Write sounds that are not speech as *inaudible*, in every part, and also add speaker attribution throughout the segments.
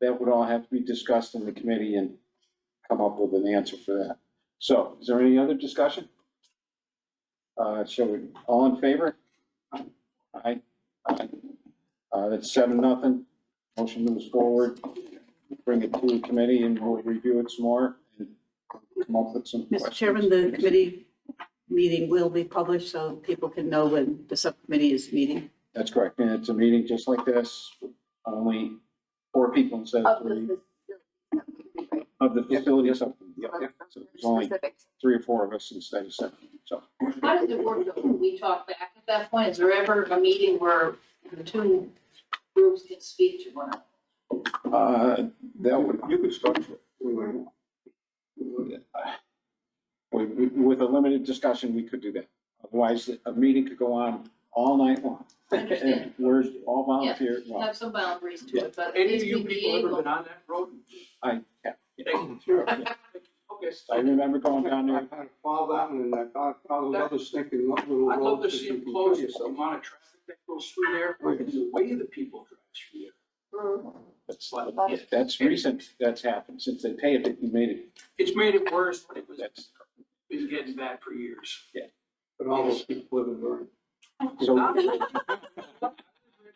Speaker 1: that would all have to be discussed in the committee and come up with an answer for that. So is there any other discussion? Uh, shall we, all in favor? Aye. Aye. Uh, that's seven, nothing. Motion moves forward. Bring it to the committee and we'll review it some more and come up with some
Speaker 2: Mr.
Speaker 1: questions.
Speaker 2: Chairman, the committee meeting will be published so people can know when the subcommittee is meeting.
Speaker 1: That's correct. And it's a meeting just like this, only four people instead of
Speaker 3: Of
Speaker 1: three,
Speaker 3: the fac-
Speaker 1: of the facility or something. Yep,
Speaker 3: right,
Speaker 1: yep.
Speaker 3: of
Speaker 1: So there's
Speaker 3: the
Speaker 1: only
Speaker 3: specifics.
Speaker 1: three or four of us instead of seven, so.
Speaker 4: How does it work though? when We talk back at that point. Is there ever a meeting where the two groups can speak to one another?
Speaker 1: Uh, that would,
Speaker 5: You could structure it.
Speaker 1: *sighs* with, with a limited discussion, we could do that. Otherwise, a meeting could go on all night long.
Speaker 4: I understand.
Speaker 1: We're all volunteer, well,
Speaker 4: Have some boundaries to it, but at
Speaker 5: Any of
Speaker 4: least
Speaker 5: you
Speaker 4: we
Speaker 5: people ever been
Speaker 4: be
Speaker 5: on that road?
Speaker 1: I, yeah,
Speaker 5: Thank you. Okay.
Speaker 1: I remember going down
Speaker 6: I
Speaker 1: there,
Speaker 6: kind of follow that one and I thought, follow the other stinking little
Speaker 5: I'd love to
Speaker 6: roads.
Speaker 5: see them close this amount of traffic that goes through there, or the way the people drive through there.
Speaker 4: able.
Speaker 1: that's, that's recent, that's happened, since they paid it, we made it,
Speaker 5: It's made it worse, but it was,
Speaker 1: that's,
Speaker 5: been getting bad for years.
Speaker 6: But all those people live in Vernon.
Speaker 1: so,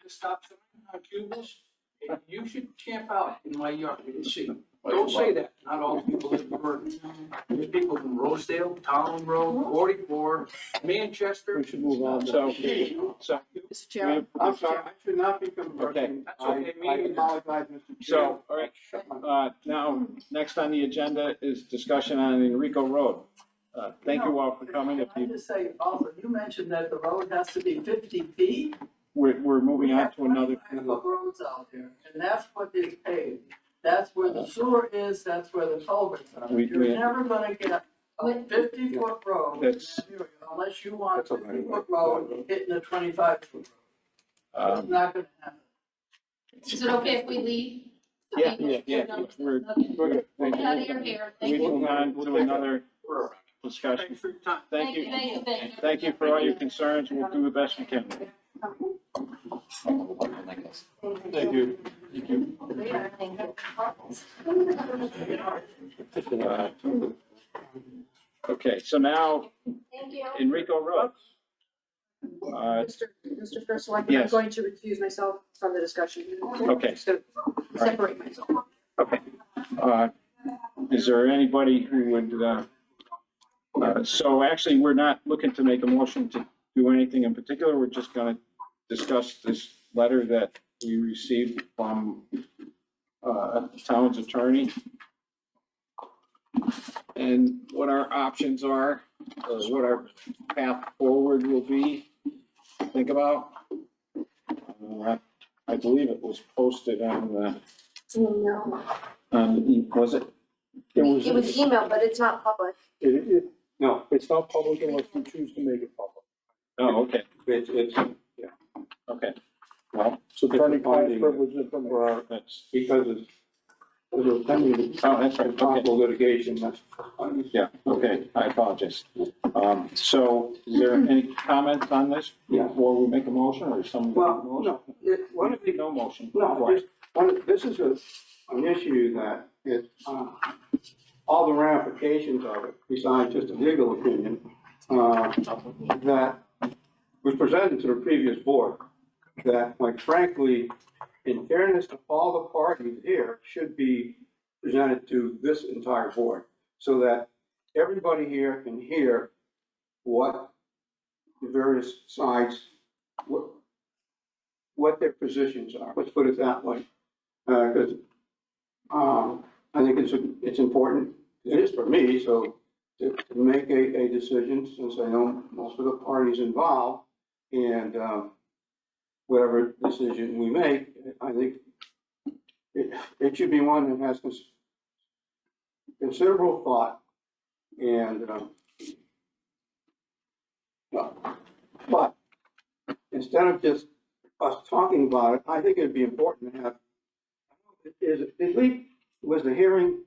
Speaker 5: To Stop sign on Cubans, and you should camp out in my yard, you see. Don't say that, not all people live in Vernon. There's people from Rosedale, Town Road, forty-four, Manchester.
Speaker 1: we should move on, so, so.
Speaker 2: Mr. Chairman,
Speaker 6: I'm sorry, I should not be conversing.
Speaker 5: That's
Speaker 6: I
Speaker 5: okay,
Speaker 6: I
Speaker 5: me either.
Speaker 6: apologize, Mr. Chair.
Speaker 1: So, all right,
Speaker 6: Shut my
Speaker 1: Uh, Now, next on the agenda is discussion on Enrico Road. Uh, Thank you all for coming. If
Speaker 7: Can I
Speaker 1: you,
Speaker 7: just say also, you mentioned that the road has to be fifty feet.
Speaker 1: we're, we're moving on to another,
Speaker 7: We have 25 roads out here, and that's what is paved. That's where the sewer is, that's where the culverts are.
Speaker 1: We- we-
Speaker 7: You're never gonna get a
Speaker 4: Oh, Wait.
Speaker 7: fifty foot road in
Speaker 1: That's-
Speaker 7: that area unless you want a
Speaker 6: That's a right
Speaker 7: fifty
Speaker 6: of way.
Speaker 7: foot road hitting a twenty-five foot road. It's
Speaker 1: um,
Speaker 7: not gonna happen.
Speaker 4: Is it okay if we leave?
Speaker 1: Yeah,
Speaker 4: Okay,
Speaker 1: yeah, yeah.
Speaker 4: sure, no,
Speaker 1: We're-
Speaker 4: okay.
Speaker 1: we're
Speaker 4: Get out of your hair. Thank you.
Speaker 1: moving on to another
Speaker 5: Thanks
Speaker 1: discussion.
Speaker 5: for your time.
Speaker 1: Thank you.
Speaker 4: Thank you, thank you.
Speaker 1: Thank you for all your concerns. We'll do the best we can.
Speaker 6: Thank you.
Speaker 1: Uh, Okay, so now
Speaker 4: Thank you.
Speaker 1: Enrico Road. Uh,
Speaker 3: Mr. Mr. First Selectman, I'm
Speaker 1: Yes,
Speaker 3: going to recuse myself from the discussion.
Speaker 1: Okay.
Speaker 3: Just to Separate myself.
Speaker 1: Uh, Is there anybody who would, uh, uh, so actually, we're not looking to make a motion to do anything in particular. We're just going to discuss this letter that we received from uh, town's attorney. And what our options are, uh, what our path forward will be, think about. Uh, I believe it was posted on the
Speaker 3: No,
Speaker 1: um, was it?
Speaker 6: It
Speaker 3: it was emailed, but it's not public.
Speaker 6: it- it- No, it's not public unless you choose to make it public.
Speaker 1: Oh, okay,
Speaker 6: It's, it's.
Speaker 1: okay. Well,
Speaker 6: Attorney-client privilege
Speaker 1: for
Speaker 6: information.
Speaker 1: our- that's,
Speaker 6: Because it's, it's pending
Speaker 1: uh, oh, that's right, okay.
Speaker 6: possible litigation, that's.
Speaker 1: Yeah, okay, I apologize. Um, so is there any comments on this before we make a motion or some?
Speaker 6: Well, no, it, one of the
Speaker 1: No motion.
Speaker 6: No,
Speaker 1: Right.
Speaker 6: this, one- this is a, an issue that it, uh, all the ramifications of it, besides just a legal opinion, uh, that was presented to the previous board, that like frankly, in fairness to all the parties here, should be presented to this entire board, so that everybody here can hear what the various sides, what, what their positions are, let's put it that way. Uh 'cause um, I think it's, it's important, it is for me, so to to make a, a decision, since I know most of the parties involved, and, um, whatever decision we make, I think it, it should be one that has cons- considerable thought, and, um, well, but, instead of just us talking about it, I think it'd be important to have, is, did we, was the hearing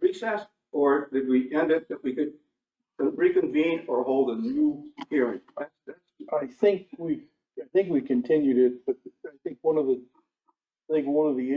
Speaker 6: recessed? Or did we end it that we could reconvene or hold a new hearing? That's- that's-
Speaker 8: I think we, I think we continued it, but I think one of the, I think one of the